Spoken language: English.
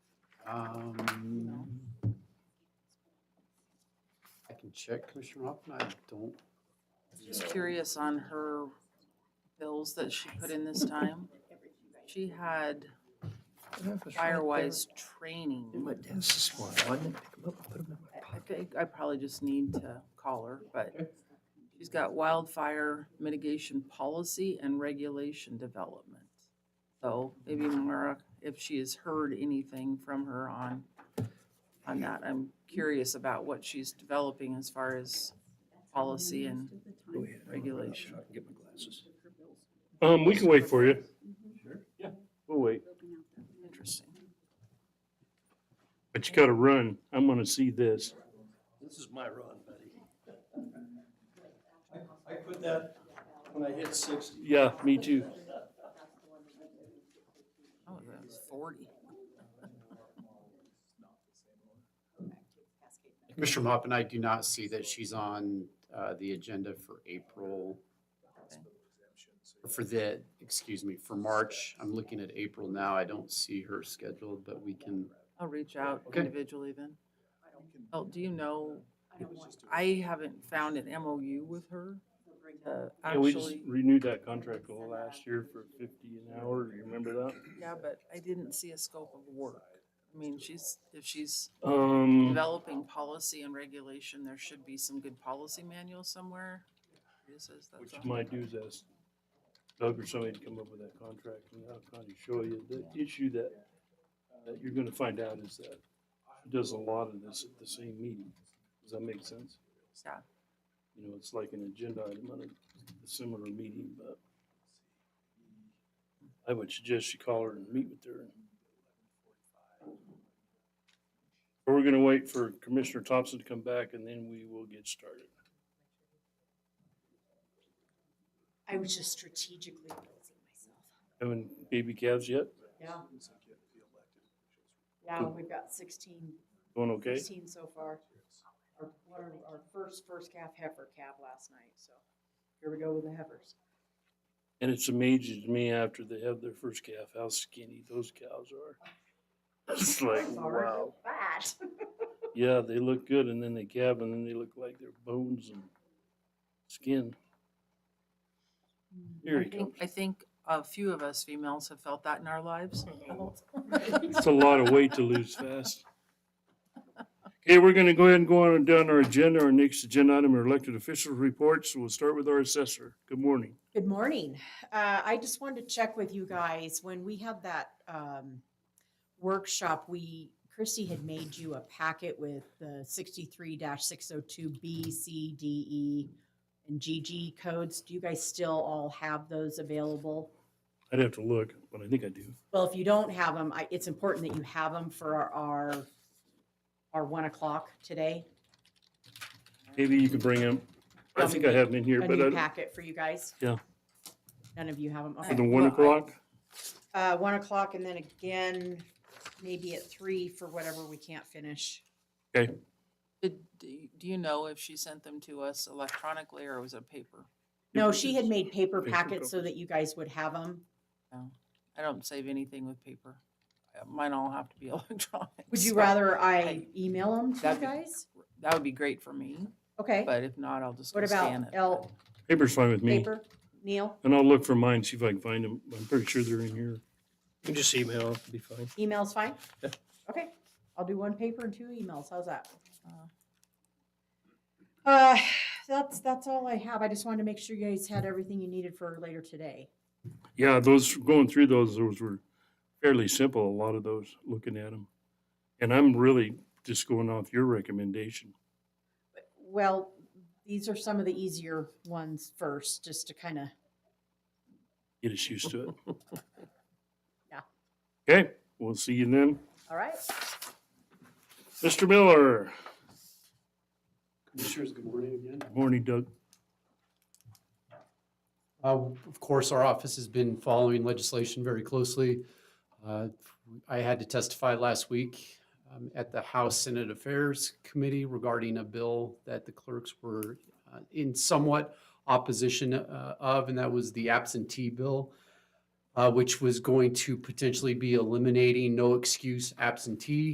Um, I can check, Commissioner Hoffman, I don't, Just curious on her bills that she put in this time. She had Firewise training. What, this is one, I didn't pick 'em up, I put 'em in my I think I probably just need to call her, but she's got wildfire mitigation policy and regulation development. So maybe Mara, if she has heard anything from her on, on that, I'm curious about what she's developing as far as policy and Go ahead, I'm gonna run regulation. outside and Get my glasses. Um, we can wait for you. We'll wait. interesting. But you gotta run. I'm gonna see this. This is my run, buddy. I put that when I hit sixty. Yeah, me too. Oh, that was forty. Commissioner Hoffman, I do not see that she's on, uh, the agenda for April. Or For the, excuse me, for March, I'm looking at April now, I don't see her scheduled, but we can, I'll reach out Okay. individually then. Oh, do you know, I haven't found an MOU with her. uh, Yeah, we just Actually, renewed that contract all last year for fifty an hour. You remember that? yeah, but I didn't see a scope of work. I mean, she's, if she's Um, developing policy and regulation, there should be some good policy manual somewhere. It says that's what on- you might do is ask Doug or somebody to come up with that contract and I'll kind of show you. The issue that, that you're gonna find out is that she does a lot of this at the same meeting. Does that make sense? Yeah, You know, it's like an agenda item on a similar meeting, but I would suggest you call her and meet with her. Or We're gonna wait for Commissioner Thompson to come back and then we will get started. I was just strategically building myself. Having baby calves yet? Yeah. Yeah, we've got sixteen, Going okay? sixteen so far. Our, what are our first, first calf heifer calf last night, so here we go with the heifers. And it's amazing to me after they have their first calf, how skinny those cows are. It's like, Sorry, they're wow. Fat. Yeah, they look good and then they calve and then they look like their bones and skin. Here I he comes. think, I think a few of us females have felt that in our lives. It's a lot of weight to lose fast. Okay, we're gonna go ahead and go on and down our agenda. Our next agenda item are elected officials reports. We'll start with our assessor. Good morning. Good morning. Uh, I just wanted to check with you guys. When we had that um, workshop, we, Christy had made you a packet with the sixty-three six oh two B, C, D, E, and GG codes. Do you guys still all have those available? I'd have to look, but I think I do. Well, if you don't have them, I, it's important that you have them for our- our, our one o'clock today. Maybe you can bring him. I think I have him in here, A but new I, packet for you guys. Yeah. None of you have them. for the one o'clock, Uh, one o'clock and then again, maybe at three for whatever we can't finish. Did, do you- do you know if she sent them to us electronically or was it paper? No, she had made paper Paper packets so that you guys would have them. I don't save anything with paper. Uh, Mine all have to be electronic. Would you so rather I I- email them to you That'd be- guys? That would be great for me, Okay, but if not, I'll just go what scan about it. L, paper's fine with me. paper, Neil? And I'll look for mine, see if I can find them. I'm pretty sure they're in here. You can just email, it'll be fine. Email's fine? Yeah. Okay, I'll do one paper and two emails, how's that? Uh. Uh, that's, that's all I have, I just wanted to make sure you guys had everything you needed for later today. Yeah, those, going through those, those were fairly simple, a lot of those, looking at them. And I'm really just going off your recommendation. Well, these are some of the easier ones first, just to kind of, Get us used to it. Yeah. Okay, we'll see you then. all right? Mr. Miller, Commissioners, good morning again. morning Doug. Uh, Of course, our office has been following legislation very closely. Uh, I had to testify last week um, at the House Senate Affairs Committee regarding a bill that the clerks were uh, in somewhat opposition uh, of, and that was the absentee bill, uh, which was going to potentially be eliminating no excuse absentee